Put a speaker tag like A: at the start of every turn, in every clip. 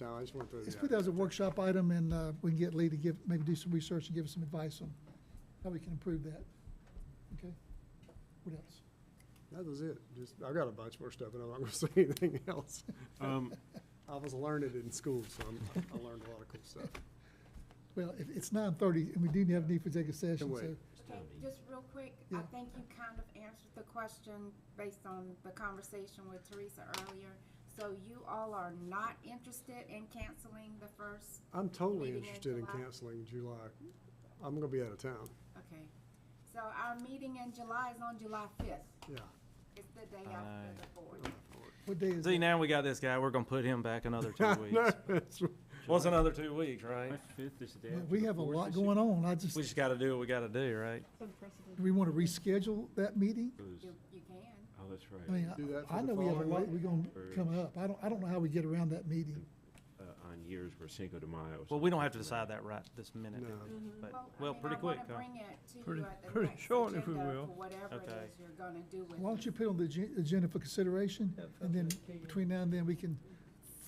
A: now, I just want to.
B: Let's put that as a workshop item, and uh, we can get Lee to give, maybe do some research and give us some advice on how we can improve that. Okay? What else?
A: That was it. Just, I've got a bunch more stuff, and I'm not gonna say anything else.
C: Um,
A: I was learned in school, so I'm, I learned a lot of cool stuff.
B: Well, it- it's nine thirty, and we do have a need for executive session, so
A: wait.
D: Okay, just real quick, I
B: Yeah.
D: think you kind of answered the question based on the conversation with Teresa earlier. So you all are not interested in canceling the first,
A: I'm totally
D: Meeting in
A: interested in
D: July.
A: canceling July. I'm gonna be out of town,
D: okay. So our meeting in July is on July fifth.
A: yeah.
D: It's the day after the board.
B: what day is
E: See,
B: it?
E: now we got this guy. We're gonna put him back another two
A: No,
E: weeks.
A: that's right.
E: What's another two weeks, right?
C: My fifth is the day.
B: Well, We have a lot going on, I just,
E: We just gotta do what we gotta do, right?
B: do we want to reschedule that meeting?
D: You, you can.
C: Oh, that's
B: I
C: right,
B: mean,
A: Do that for
B: I I
A: the
B: know we have a
A: following
B: lot,
A: week?
B: we're gonna come up, I don't, I don't know how we get around that meeting.
C: uh, on years where Cinco de Mayo. or
E: Well, we don't have to
C: something
E: decide that right this minute,
A: No.
E: but,
D: Well, I
E: well,
D: mean,
E: pretty
D: I
E: quick,
D: wanna
E: huh?
D: Bring it to
F: Pretty-
D: you at the
F: pretty
D: next
F: short, if we
D: agenda
F: will.
D: for whatever it
E: Okay.
D: is you're gonna do with it.
B: Why don't you put on the agen- agenda for consideration, and then between now and then, we can,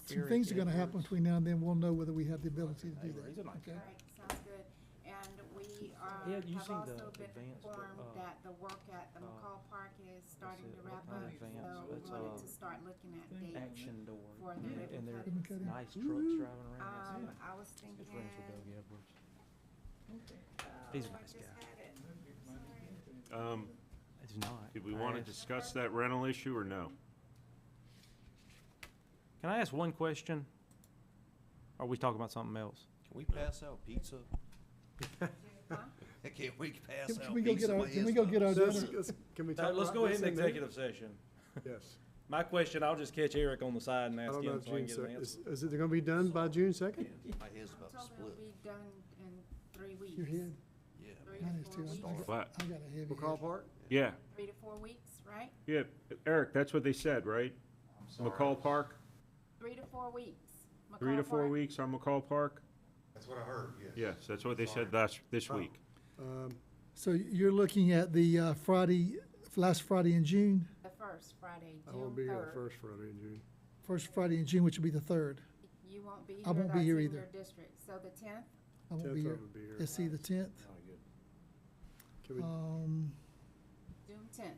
B: some things are gonna happen between now and then, we'll know whether we have the ability to do that, okay?
D: All right, sounds good. And we are,
E: Yeah, you
D: have
E: seen
D: also
E: the
D: been
E: advance, but,
D: informed
E: uh,
D: that the work at the
E: uh,
D: McCall Park is starting
E: it,
D: to
E: what
D: wrap
E: kind
D: up.
E: of advance?
D: So
E: It's,
D: we wanted to
E: uh,
D: start looking at dates.
E: Action door.
D: For the
E: Yeah,
D: ribbon
E: And they're
B: Ribbon cutting.
E: nice trucks driving around.
D: Um, I was
E: He's
D: thinking,
E: good friends with Doug Edwards. He's a
D: oh, I
E: nice
D: just
E: guy.
D: had it. Sorry.
C: Um,
E: It's not.
C: did we
E: I
C: wanna
E: asked-
C: discuss that rental issue or no?
E: Can I ask one question? Or Are we talking about something else?
G: Can we pass out pizza?
D: Huh?
G: Can we pass
B: Can-
G: out pizza?
B: Can we go get our,
G: by
B: can we go get our
A: Let's-
B: dinner?
A: let's- Can we talk about this? in there?
E: session.
A: Yes.
E: My question, I'll just catch Eric on the side and
A: I
E: ask
A: don't know
E: him
A: if
E: so I
A: June
E: can get an
A: second,
E: answer.
A: is, is it gonna be done by June second?
G: My head's about to
D: I'm told it'll
G: split,
D: be done in three weeks.
B: Your head,
G: yeah.
D: Three
B: mine
D: to
B: is
D: four
B: too, I
D: weeks,
B: got-
C: What?
B: I got a heavy
A: McCall
B: head.
A: Park?
C: Yeah,
D: three to four weeks, right?
C: yeah, Eric, that's what they said, right? McCall Park,
D: Three to four weeks.
C: three to
D: McCall
C: four
D: Park.
C: weeks on McCall Park?
G: That's what I heard,
C: Yes, that's what they said last, this
A: Oh.
C: week.
A: Um,
B: So you're looking at the uh, Friday, last Friday in June,
D: The first Friday,
A: I
D: June
A: won't be here the
D: third.
A: first Friday in June.
B: first Friday in June, which will be the third.
D: You won't be here.
B: I won't be
D: that's
B: here
D: in
B: either.
D: your District, so the tenth,
B: I won't
A: Tenth
B: be
A: I
B: here.
A: would be here.
B: Let's see, the tenth.
A: Can we, I-
B: Um,
D: June tenth.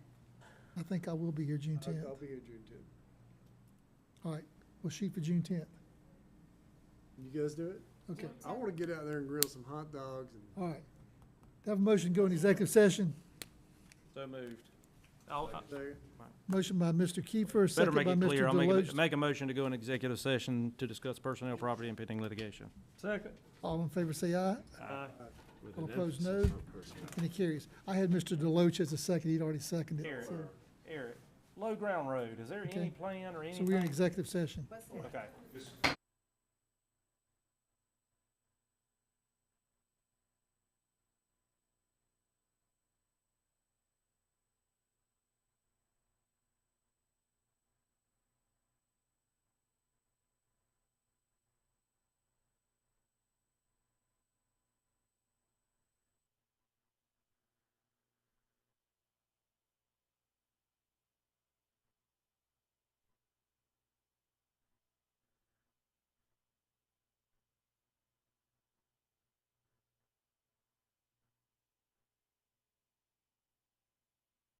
B: I think I will be here June tenth.
A: I'll be here June tenth.
B: All right, we'll shoot for June tenth.
A: You guys do it?
B: Okay,
A: I wanna get out there and grill some hot dogs and
B: all right. Do I Have a motion to go in executive session.
E: So moved. I'll, I-
A: Second.
B: Motion by Mr. Kiefer,
E: Better
B: second by
E: make it clear.
B: Mr.
E: I'll make,
B: Deloach.
E: a- make a motion to go in executive session to discuss personnel, property, and pending litigation.
F: Second.
B: All in favor, say aye.
C: with
B: All
C: an
B: opposed,
C: emphasis
B: no.
C: on personnel.
B: Any carries? I had Mr. Deloach as a second, he'd already seconded it, so,
E: Eric, Low Ground Road, is there
B: Okay.
E: plan or
B: so we're in executive session.
D: What's that?
E: Okay.